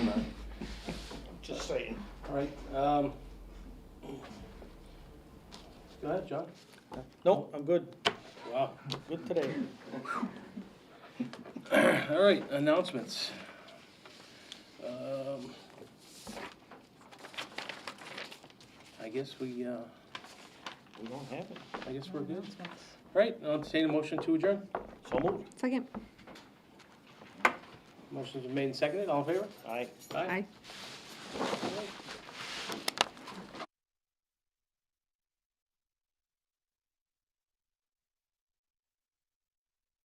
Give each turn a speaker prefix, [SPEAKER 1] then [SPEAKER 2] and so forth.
[SPEAKER 1] right, um. Go ahead, John.
[SPEAKER 2] No, I'm good,
[SPEAKER 1] Wow.
[SPEAKER 2] good today.
[SPEAKER 1] All right, announcements. Um, I guess we, uh,
[SPEAKER 2] We don't have it.
[SPEAKER 1] I guess we're good. All right, I'll entertain a motion to adjourn.
[SPEAKER 2] So moved.
[SPEAKER 3] Second.
[SPEAKER 1] Motion's been made and seconded, all in favor?
[SPEAKER 2] Aye.
[SPEAKER 3] Aye.
[SPEAKER 1] All right.